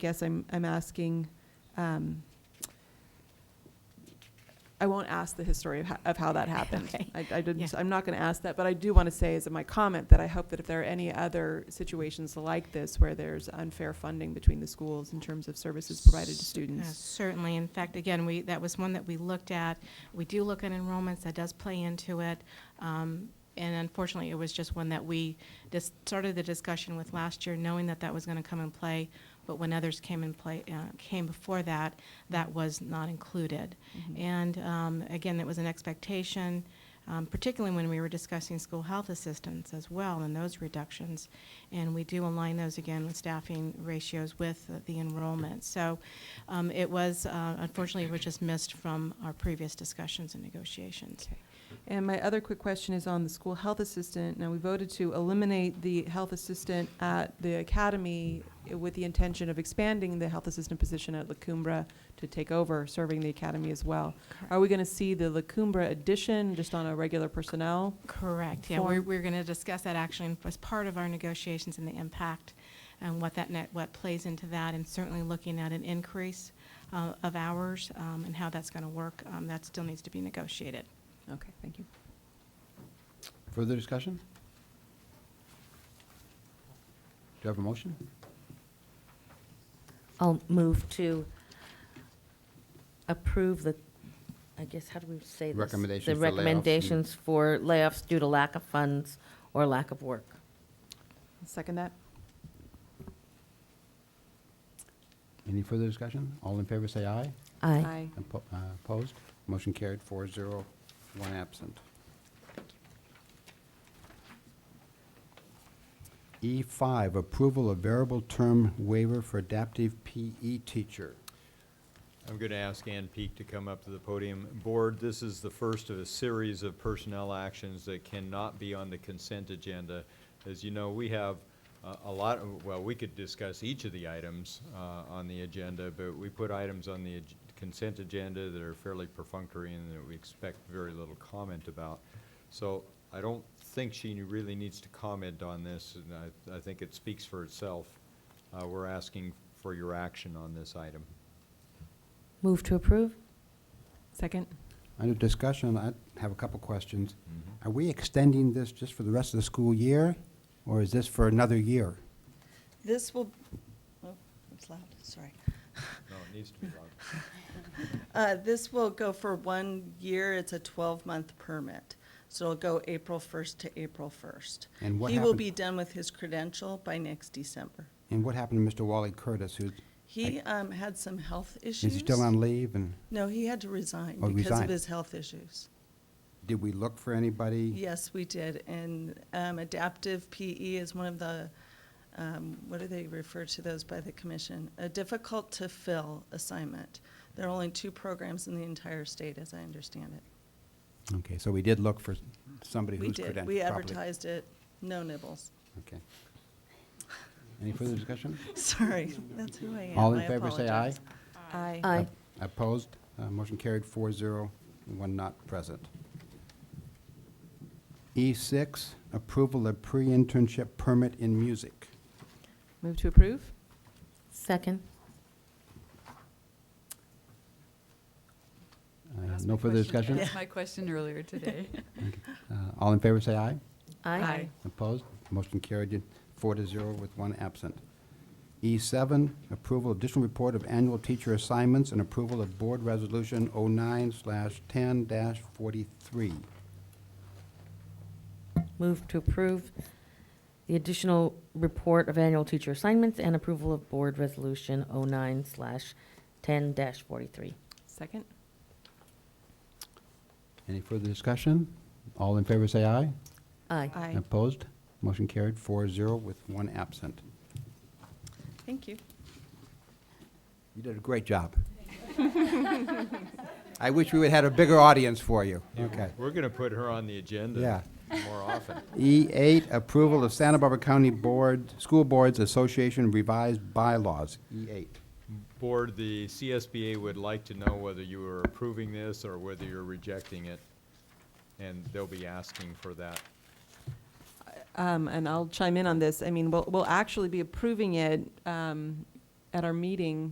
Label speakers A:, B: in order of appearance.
A: guess I'm, I'm asking, um, I won't ask the history of ho- of how that happened.
B: Okay.
A: I I didn't,
B: Yeah.
A: I'm not going to ask that, but I do want to say as my comment that I hope that if there are any other situations like this where there's unfair funding between the schools in terms of services provided to
B: Uh,
A: students.
B: Certainly. In fact, again, we, that was one that we looked at. We do look at enrollments, that does play into it. Um, And unfortunately, it was just one that we just started the discussion with last year, knowing that that was going to come in play. But when others came in play, uh, came before that, that was not included. And um, again, that was an expectation, um, particularly when we were discussing school health assistance as well and those reductions. And we do align those again with staffing ratios with the enrollment. So um, it was, uh, unfortunately, it was just missed from our previous discussions and negotiations.
A: Okay. And my other quick question is on the school health assistant. Now, we voted to eliminate the health assistant at the academy eh, with the intention of expanding the health assistant position at La Cumbra to take over serving the academy as well. Are we going to see the La Cumbra addition just on a regular personnel?
B: Correct, yeah, we're,
A: Form.
B: we're going to discuss that actually as part of our negotiations and the impact and what that net, what plays into that, and certainly looking at an increase uh, of hours um, and how that's going to work, um, that still needs to be negotiated.
A: Okay, thank you.
C: Further discussion? Do you have a motion?
D: I'll move to approve the, I guess, how do we say this?
C: Recommendations
D: The
C: for layoffs and-
D: recommendations for layoffs due to lack of funds or lack of work.
A: Second that?
C: Any further discussion? All in favor, say aye.
D: Aye.
C: Oppo- uh, Opposed? Motion carried, four zero, one absent. E5, E approval of variable term waiver for adaptive PE teacher.
E: I'm going to ask Ann Peak to come up to the podium. Board, this is the first of a series of personnel actions that cannot be on the consent agenda. As you know, we have uh, a lot, of- well, we could discuss each of the items uh, on the agenda, but we put items on the ag- consent agenda that are fairly perfunctory and that we expect very little comment about. So I don't think she really needs to comment on this, and I- I think it speaks for itself. Uh, We're asking for your action on this item.
D: Move to approve?
A: Second?
C: Under discussion, I have a couple questions. Are we extending this just for the rest of the school year, or is this for another year?
F: This will, oh, it's loud, sorry.
E: No, it needs to be loud.
F: Uh, This will go for one year, it's a 12-month permit. So it'll go April 1st to April 1st.
C: And what
F: He will
C: happen-
F: be done with his credential by next December.
C: And what happened to Mr. Wally Curtis, who's,
F: He um, had some health issues.
C: is he still on leave, and
F: No, he had to resign
C: Oh,
F: because of
C: resign.
F: his health issues.
C: did we look for anybody?
F: Yes, we did, and um, adaptive PE is one of the, um, what do they refer to those by the commission? A difficult-to-fill assignment. There are only two programs in the entire state, as I understand it.
C: Okay, so we did look for s- somebody
F: We
C: who's credentialed
F: did.
C: properly.
F: We advertised it. No nibbles.
C: Okay. Any further discussion?
F: Sorry, that's who I am.
C: All in
F: I
C: favor, say aye.
F: apologize.
A: Aye.
D: Aye.
C: Opposed? Uh, Motion carried, four zero, one not present. E6, approval of pre-internship permit in music.
A: Move to approve?
D: Second?
C: Uh,
G: Ask
C: No
G: my
C: further
G: question-
C: discussion?
G: ask my question earlier today.
C: Uh, All in favor, say aye.
D: Aye.
C: Opposed? Motion carried, four to zero with one absent. E7, approval of additional report of annual teacher assignments and approval of Board Resolution 09/10-43.
D: Move to approve the additional report of annual teacher assignments and approval of Board Resolution 09/10-43. slash 10-43.
A: Second?
C: Any further discussion? All in favor, say aye.
D: Aye.
A: Aye.
C: Opposed? Motion carried, four zero with one absent.
F: Thank you.
C: You did a great job. I wish we would had a bigger audience for you. Okay.
E: We're going to put her on the agenda more often.
C: E8, E approval of Santa Barbara County Board, School Boards Association revised bylaws. E E8.
E: Board, the CSBA would like to know whether you are approving this or whether you're rejecting it, and they'll be asking for that.
A: Um, and I'll chime in on this. I mean, we'll, we'll actually be approving it, um, at our meeting,